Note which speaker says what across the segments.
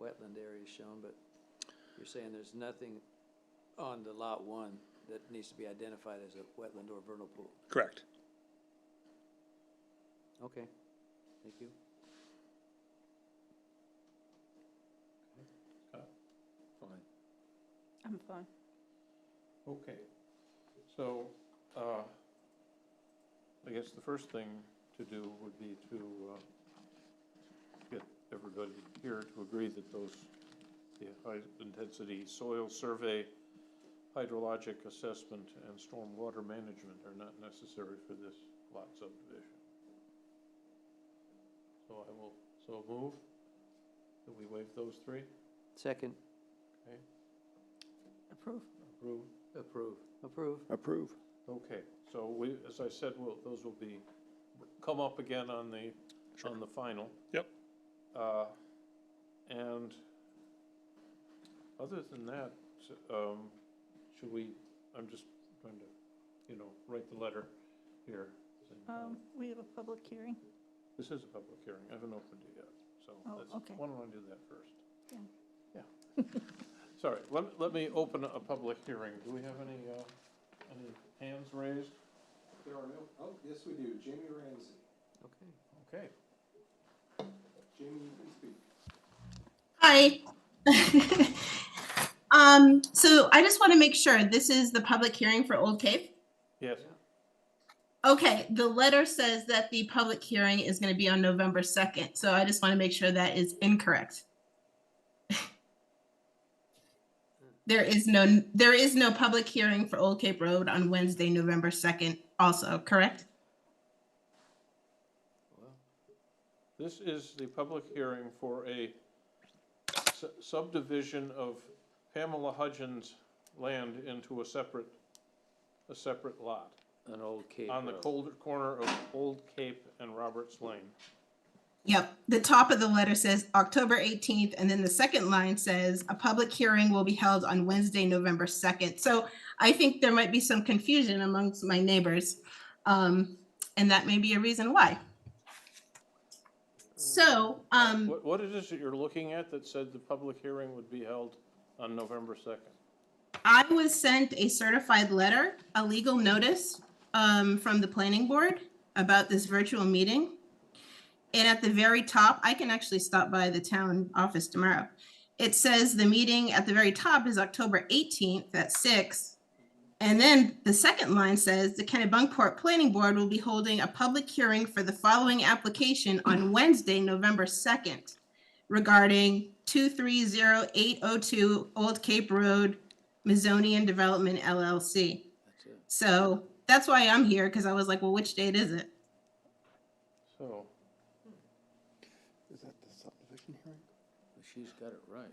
Speaker 1: wetland areas shown, but you're saying there's nothing on the lot one that needs to be identified as a wetland or vernal pool.
Speaker 2: Correct.
Speaker 1: Okay, thank you.
Speaker 3: Fine.
Speaker 4: I'm fine.
Speaker 3: Okay, so, uh, I guess the first thing to do would be to, uh, get everybody here to agree that those, the high-intensity soil survey, hydrologic assessment, and stormwater management are not necessary for this lot subdivision. So I will, so move, that we waive those three,
Speaker 1: Second,
Speaker 3: okay,
Speaker 4: Approve.
Speaker 3: approved? Approved.
Speaker 1: approve.
Speaker 2: Approve.
Speaker 3: Okay, so we, as I said, will, those will be, come up again on the, on the final.
Speaker 2: Yep.
Speaker 3: Uh, and other than that, um, should we, I'm just trying to, you know, write the letter here.
Speaker 4: Um, we have a public hearing.
Speaker 3: This is a public hearing, I haven't opened it yet, so
Speaker 4: Oh,
Speaker 3: that's,
Speaker 4: okay.
Speaker 3: why don't I do that first?
Speaker 4: Yeah.
Speaker 3: Yeah. Sorry, let, let me open a public hearing. Do we have any, uh, any hands raised?
Speaker 5: There are no, oh, yes, we do. Jamie Ramsey.
Speaker 1: Okay.
Speaker 3: Okay.
Speaker 5: Jamie, you can speak.
Speaker 6: Hi. um, so I just want to make sure this is the public hearing for Old Cave.
Speaker 3: Yes,
Speaker 6: Okay, the letter says that the public hearing is going to be on November 2nd. So I just want to make sure that is incorrect. there is no there is no public hearing for Old Cape Road on Wednesday, November 2nd also, correct?
Speaker 3: this is the public hearing for a su- subdivision of Pamela Hudgens' land into a separate, a separate lot
Speaker 1: An old Cape
Speaker 3: on the
Speaker 1: Road.
Speaker 3: colder corner of Old Cape and Roberts Lane.
Speaker 6: Yep. The top of the letter says October 18th, and then the second line says a public hearing will be held on Wednesday, November 2nd. So I think there might be some confusion amongst my neighbors, um, and that may be a reason why. So, um,
Speaker 3: What, what is this that you're looking at that said the public hearing would be held on November second?
Speaker 6: I was sent a certified letter, a legal notice um, from the planning board about this virtual meeting. And at the very top, I can actually stop by the town office tomorrow. It says the meeting at the very top is October 18th at six. And then the second line says the Kennebunkport Planning Board will be holding a public hearing for the following application on Wednesday, November 2nd regarding 230802 Old Cape Road, Mizonian Development LLC.
Speaker 1: That's it.
Speaker 6: So that's why I'm here, because I was like, well, which date is it?
Speaker 3: So,
Speaker 7: Is that the subdivision hearing?
Speaker 1: She's got it right.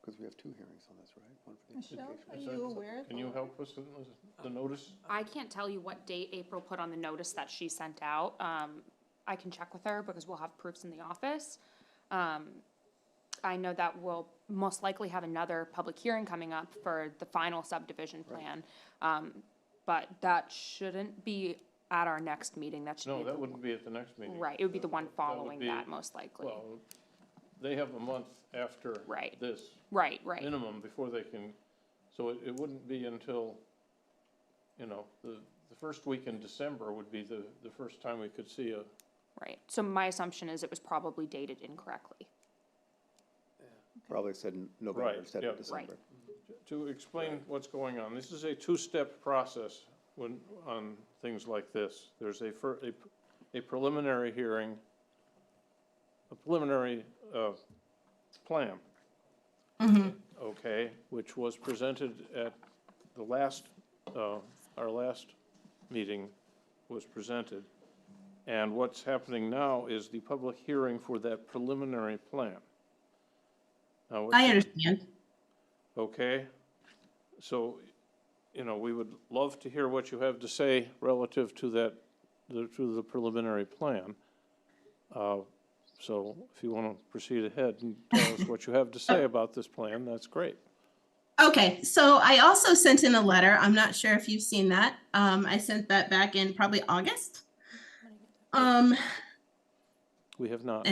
Speaker 7: Because we have two hearings on this, right? One for the
Speaker 4: Michelle,
Speaker 7: application.
Speaker 4: are you aware? of
Speaker 3: can
Speaker 4: the
Speaker 3: you
Speaker 4: law?
Speaker 3: help us with the notice?
Speaker 8: I can't tell you what date April put on the notice that she sent out. Um, I can check with her because we'll have proofs in the office. Um, I know that we'll most likely have another public hearing coming up for the final subdivision plan. Um, but that shouldn't be at our next meeting. That should be.
Speaker 3: No,
Speaker 8: the-
Speaker 3: that wouldn't be at the next meeting.
Speaker 8: Right, it would be the one
Speaker 3: would
Speaker 8: following
Speaker 3: be-
Speaker 8: that, most likely.
Speaker 3: Well, they have a month after
Speaker 8: Right.
Speaker 3: this
Speaker 8: Right, right.
Speaker 3: minimum before they can, so it, it wouldn't be until, you know, the, the first week in December would be the, the first time we could see a,
Speaker 8: Right, so my assumption is it was probably dated incorrectly.
Speaker 7: Probably said in November
Speaker 3: Right,
Speaker 7: instead
Speaker 3: yeah.
Speaker 7: of
Speaker 3: Right.
Speaker 7: December.
Speaker 3: to explain what's going on. This is a two-step process when, on things like this. There's a fir, a, a preliminary hearing, a preliminary, uh, plan. Okay, which was presented at the last, uh, our last meeting was presented. And what's happening now is the public hearing for that preliminary plan. Now, what's-
Speaker 6: I understand.
Speaker 3: Okay, so, you know, we would love to hear what you have to say relative to that, the- to the preliminary plan. Uh, So if you want to proceed ahead and tell us what you have to say about this plan, that's great.
Speaker 6: Okay, so I also sent in a letter. I'm not sure if you've seen that. Um, I sent that back in probably August. Um,
Speaker 3: We have not.